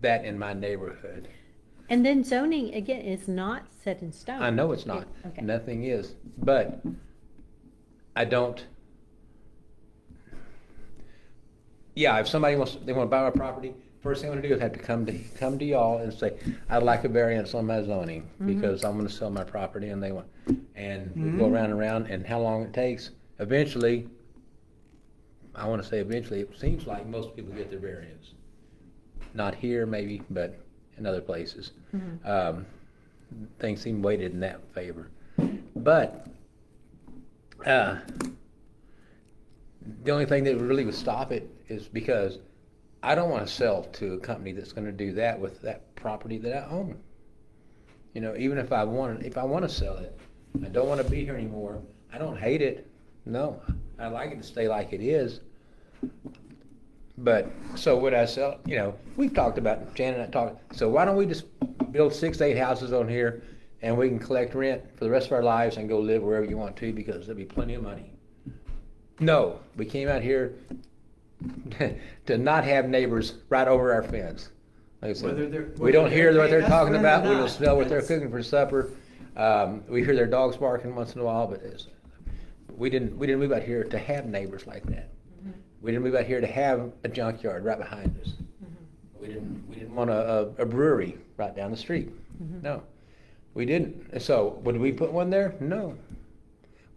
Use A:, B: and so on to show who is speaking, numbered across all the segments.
A: that in my neighborhood.
B: And then zoning, again, is not set in stone.
A: I know it's not,
B: Okay.
A: nothing is, but I don't. Yeah, if somebody wants, they wanna buy my property, first thing I'm gonna do is have to come to, come to y'all and say, I'd like a variance on my zoning, because I'm gonna sell my property and they want, and we go around and around, and how long it takes, eventually, I wanna say eventually, it seems like most people get their variance. Not here maybe, but in other places. Um, things seem weighted in that favor. But, uh, the only thing that really would stop it is because I don't want to sell to a company that's going to do that with that property that I own. You know, even if I want, if I want to sell it, I don't want to be here anymore. I don't hate it. No, I like it to stay like it is. But, so would I sell, you know, we've talked about, Jan and I talked, so why don't we just build six, eight houses on here and we can collect rent for the rest of our lives and go live wherever you want to because there'll be plenty of money. No, we came out here to not have neighbors right over our fence. Like I said,
C: Whether they're-
A: We don't
C: whether
A: hear
C: they're
A: what they're
C: paying us
A: talking
C: rent or
A: about, we
C: not,
A: don't smell what they're
C: that's-
A: cooking for supper. Um, we hear their dogs barking once in a while, but it's, we didn't, we didn't move out here to have neighbors like that. We didn't move out here to have a junkyard right behind us. We didn't, we didn't want a, a a brewery right down the street. No, we didn't. And So would we put one there? No.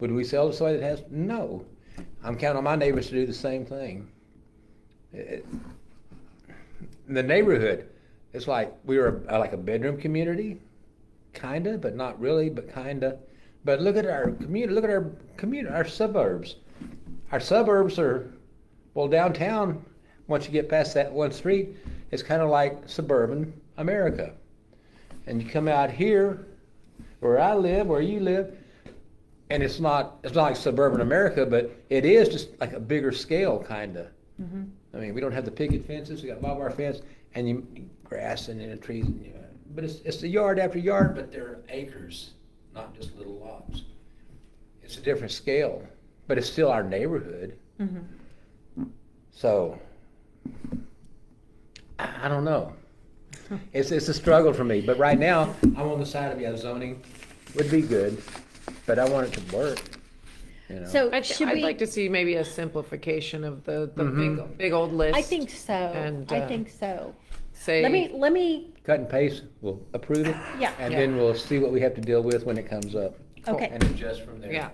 A: Would we sell to somebody that has? No. I'm counting on my neighbors to do the same thing. It- in the neighborhood, it's like we were a, like a bedroom community, kinda, but not really, but kinda. But look at our community. Look at our community. Our suburbs. Our suburbs are well downtown. Once you get past that one street, it's kind of like suburban America. And you come out here, where I live, where you live, and it's not it's not like suburban America, but it is just like a bigger scale kind of.
B: Mm-hmm.
A: I mean, we don't have the picket fences. We got barbed wire fence and you, grass and, and trees. And, you know, but it's it's the yard after yard, but they're acres, not just little lots. It's a different scale, but it's still our neighborhood.
B: Mm-hmm.
A: So I, I don't know. It's it's a struggle for me, but right now I'm on the side of yeah, zoning would be good, but I want it to work. You know.
B: So
D: I th-
B: should
D: I'd
B: we,
D: like to see maybe a simplification of the, the
A: Mm-hmm.
D: big, big old list.
B: I think so,
D: and,
B: I
D: uh,
B: think so.
D: Say,
B: Let me, let me,
A: cut and paste, we'll approve it.
B: Yeah.
A: And
D: Yeah.
A: then we'll see what we have to deal with when it comes up.
B: Okay.
A: And adjust from there.
D: yeah,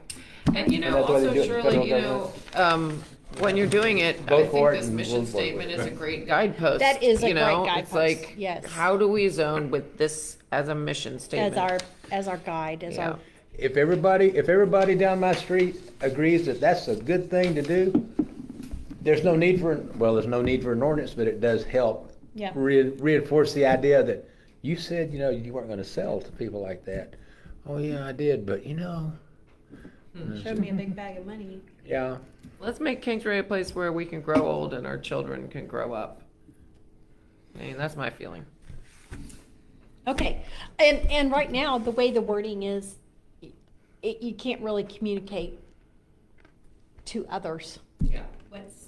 D: and you
A: And
D: know,
A: that's why they
D: also
A: do it in federal
D: Shirley, you know, um, when you're doing it, I
A: Vote for
D: think
A: it
D: this
A: and
D: mission
A: move forward.
D: statement is a great guidepost.
B: That is a
D: you know?
B: great guidepost,
D: It's like,
B: yes.
D: How do we zone with this as a mission statement?
B: as our, as our guide, as
D: Yeah.
B: our,
A: If everybody, if everybody down my street agrees that that's a good thing to do, there's no need for, well, there's no need for an ordinance, but it does help.
B: Yeah.
A: rein- Reinforce the idea that you said, you know, you weren't gonna sell to people like that. Oh, yeah, I did, but you know,
B: showed me a big bag of money.
A: yeah,
D: Let's make Kingsbury a place where we can grow old and our children can grow up. I mean, that's my feeling.
B: Okay, and, and right now, the way the wording is, it, you can't really communicate to others
D: Yeah.
B: what's,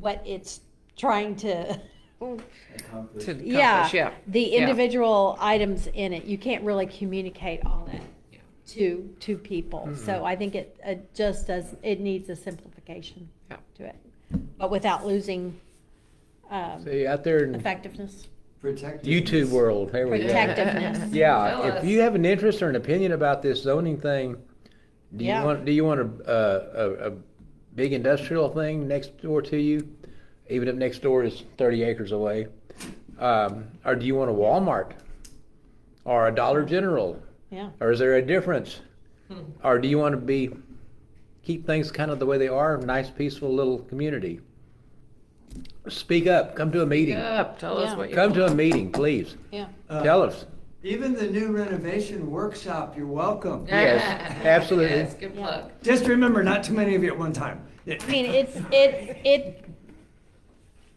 B: what it's trying to,
D: To accomplish,
B: yeah.
D: yeah.
B: The
D: Yeah.
B: individual items in it, you can't really communicate all that
D: Yeah.
B: to, to people.
A: Mm-hmm.
B: So I think it, it just does, it needs a simplification
D: Yeah.
B: to it, but without losing, um,
A: see, out there in
B: effectiveness,
C: Protect.
A: YouTube world, there we go.
B: protectiveness.
D: Tell
A: Yeah, if
D: us.
A: you have an interest or an opinion about this zoning thing, do you
B: Yeah.
A: want, do you want a, a, a, a big industrial thing next door to you? Even if next door is thirty acres away, um, or do you want a Walmart? Or a Dollar General?
B: Yeah.
A: Or is there a difference?
D: Hmm.
A: Or do you want to be, keep things kind of the way they are, nice, peaceful little community? Speak up, come to a meeting,
D: Up, tell
B: Yeah.
D: us what you.
A: come to a meeting, please,
B: Yeah.
C: Uh,
A: tell us.
C: Even the new renovation workshop, you're welcome.
A: Yes, absolutely.
D: Yes, good plug.
C: Just remember, not too many of you at one time. Yeah.
B: I mean, it's, it, it,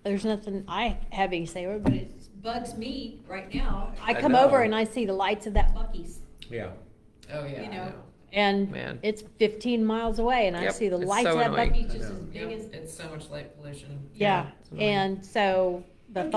B: there's nothing I have any say over, but it bugs me right now. I
A: I
B: come
A: know.
B: over and I see the lights of that Bucky's,
A: Yeah.
D: Oh, yeah.
B: you
D: I
B: know, and
D: Man.
B: it's fifteen miles away and I
D: Yep,
B: see the
D: it's
B: lights of
D: so
B: that
D: annoying.
B: Bucky's just
A: I
B: as
A: know.
B: big as,
D: It's so much light pollution.
B: yeah.
D: it's annoying.
B: And so the thought